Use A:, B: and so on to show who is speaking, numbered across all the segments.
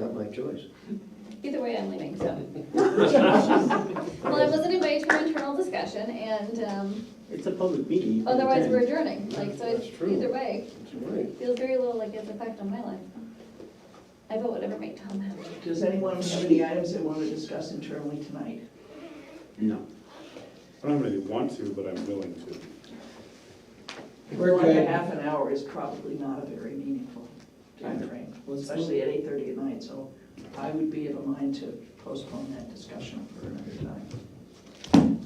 A: have a choice.
B: Either way, I'm leaving, so. Well, I wasn't invited to an internal discussion and, um,
C: It's a public meeting. you can
B: otherwise we're
C: attend.
B: adjourning, like, so
A: That's
B: it's-
A: true.
B: either way,
A: That's right.
B: feels very little like it's effect on my life. I vote whatever made Tom happy.
D: Does anyone have any items they want to discuss internally tonight?
C: No.
E: I don't really want to, but I'm willing to.
A: We're
D: One and a
A: good.
D: half an hour is probably not a very meaningful timeframe, especially at eight thirty at night, so I would be of a mind to postpone that discussion for another time.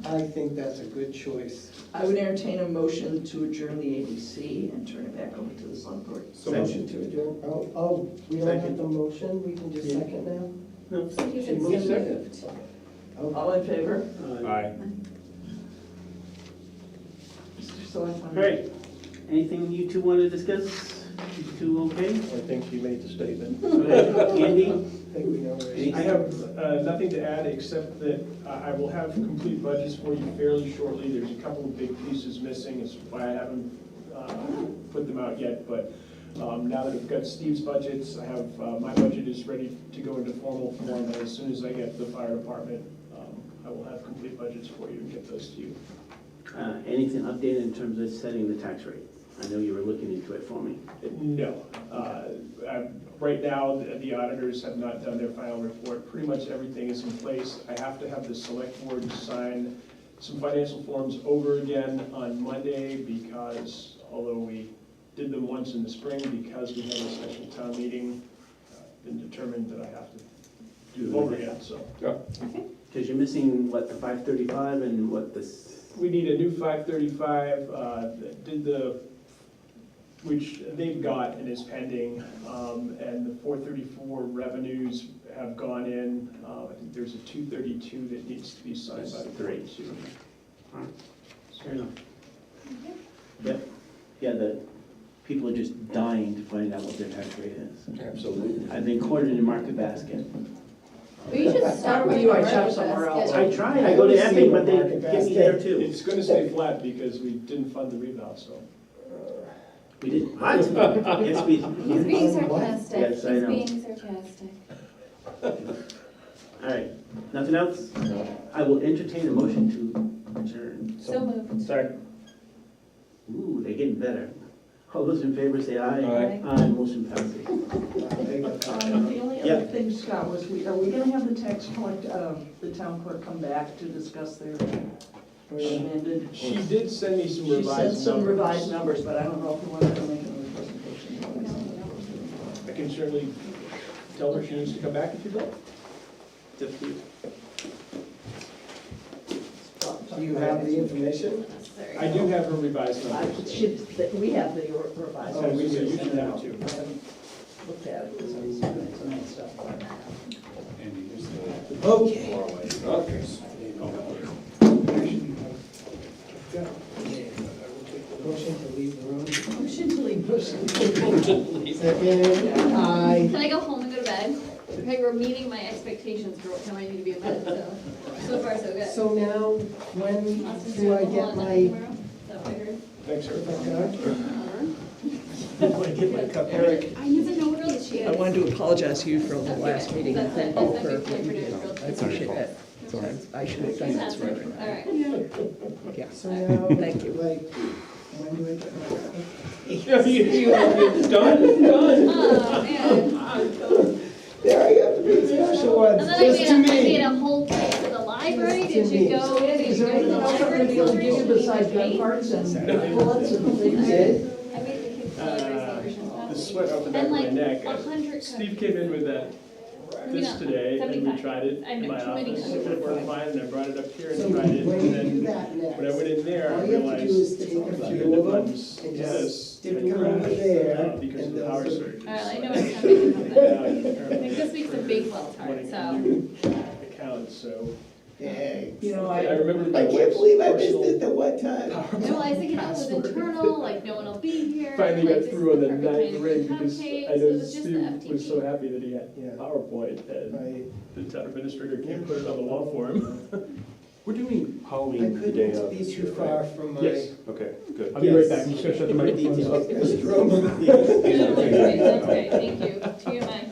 F: I think that's a good choice.
D: I would entertain a motion to adjourn the ABC and turn it back over to the select board.
E: So
F: Motion to adjourn, oh, oh, we don't have the motion, we can just
C: Yeah.
F: second now?
C: No.
B: You should
A: Move
B: see-
A: second.
F: Oh,
D: All in favor?
E: Aye.
D: Mr. Selectman?
C: Great. Anything you two want to discuss? You two okay?
A: I think she made the statement.
C: Andy?
F: I think we know where.
C: Any-
G: I have uh, nothing to add, except that I I will have complete budgets for you fairly shortly. There's a couple of big pieces missing, is why I haven't uh, put them out yet. But um, now that I've got Steve's budgets, I have, uh, my budget is ready to go into formal form. And as soon as I get the fire department, um, I will have complete budgets for you and get those to you.
C: Uh, Anything updated in terms of setting the tax rate? I know you were looking into it for me.
G: No. Uh, I'm- Right now, the the auditors have not done their final report. Pretty much everything is in place. I have to have the select board sign some financial forms over again on Monday because although we did them once in the spring, because we had a special town meeting, uh, been determined that I have to do them over again, so.
C: Because you're missing, what, the 535 and what this,
G: We need a new five thirty-five, uh, did the, which they've got and is pending, um, and the four thirty-four revenues have gone in. Uh, I think there's a two thirty-two that needs to be signed by the board too.
C: fair enough. Yep. Yeah, the people are just dying to find out what their tax rate is.
A: Absolutely.
C: I've been quartered in market basket.
B: Well, you should start with
D: You
B: your
D: might
B: market
D: shop somewhere
B: basket.
C: I
D: else.
C: tried, I go to Epic, but they give me there too.
G: It's gonna stay flat because we didn't fund the rebound, so.
C: We didn't. Yes, we
B: He's
C: did.
B: being sarcastic, he's
C: Yes, I know.
B: being sarcastic.
C: All right, nothing else? I will entertain a motion to adjourn.
B: So moved.
A: Second.
C: Ooh, they're getting better. All those in favor say aye.
B: Aye.
C: Aye, motion passes.
D: Um, The only
C: Yeah.
D: other thing, Scott, was we, are we gonna have the tax collect, um, the town clerk come back to discuss their amended?
G: She did send me some
D: She
G: revised
D: said some
G: numbers.
D: revised numbers, but I don't know if we want to make another presentation.
G: I can certainly tell her she needs to come back if you'd like.
F: Do you have the information?
B: Sorry.
G: I do have her revised
D: I
G: numbers.
D: should, that we have the revised.
G: Oh, we do. You should have it too.
D: I haven't Looked at it, because I was doing it tonight, so.
E: Andy, here's the
F: Okay.
E: far away.
A: Okay.
F: Motion to leave the room.
D: Motion to leave.
F: Second, aye.
B: Can I go home and go to bed? Okay, we're meeting my expectations for what time I need to be in bed, so, so far, so good.
F: So now, when
B: Austin's
F: do I
B: doing a
F: get
B: whole lot
F: my,
B: tomorrow, so I heard.
G: Thanks, Eric.
F: Eric,
B: I never know where else she is.
H: I wanted to apologize to you for the
B: That's
H: last
B: okay.
H: meeting.
B: That's
H: Thank
B: it.
H: you for
B: That's okay.
H: what you did. I appreciate that. I should have done
B: That's
H: this right
B: it.
H: away.
B: All right. Um,
H: Yeah.
F: so now, like,
H: Thank you.
F: when do I get my?
B: Oh, man.
F: There, I got the big special ones,
B: And then I made
F: just
B: a,
F: to
B: I
F: me.
B: made a whole trip to the library.
F: Just
B: Did
F: to
B: you
F: me.
B: go? Did
D: Is
B: you
D: there
B: go to the
D: anything else I'm gonna
B: library
D: be able to give you
B: celebration?
D: besides
B: Did you
D: gun
B: eat?
D: parts and bullets and
B: I
D: things?
F: Did?
B: made the kids
G: Uh,
B: celebrate celebration.
G: The sweat off the back
B: And
G: of my
B: like
G: neck.
B: a hundred.
G: Steve came in with that,
B: Maybe
G: this
B: not.
G: today, and we
B: 75.
G: tried it
B: I
G: in
B: know,
G: my
B: too many
G: office, and
B: hundred.
G: it worked fine, and I brought it up here
F: So
G: and tried it,
F: when
G: and
F: you do
G: then
F: that next.
G: when I went in there, I
F: All you have to do
G: realized.
F: is take a
G: a few
F: few of them
G: buttons-
F: and just
G: yes,
F: stick
G: I
F: them over
G: crashed,
F: there,
G: uh, Because of
F: and
G: the
F: those
G: power
F: are-
G: surge.
B: All right, I know
G: So
B: what's coming.
G: now
B: Like,
G: I'm apparently
B: This week's a big well hard,
G: running a
B: so.
G: new Account, so.
F: Dang.
D: You know,
G: I
D: I,
G: remember my
F: Oh, I can't believe I missed
G: personal-
F: it the one time.
B: No, I think it was internal, like, no one will be here.
G: Finally
B: like,
G: got
B: this
G: through on
B: is
G: the
B: perfect
G: ninth
B: time
G: ring
B: for
G: because
B: cupcakes.
G: I
B: It
G: know
B: was just the
G: Steve was so
B: FTP.
G: happy that he had
A: Yeah.
G: PowerPoint and
F: I-
G: the town administrator can't put it on the wall for him.
E: We're doing
F: I
E: Halloween the day
F: couldn't
E: of.
F: be
E: this
F: too
E: year,
F: far
E: right?
F: from my.
G: Yes.
E: Okay, good.
G: I'll be right back. You should shut the
C: More
G: microphone
C: details.
F: Mr. Roman.
B: No, that's great, that's great, thank you, to your mind.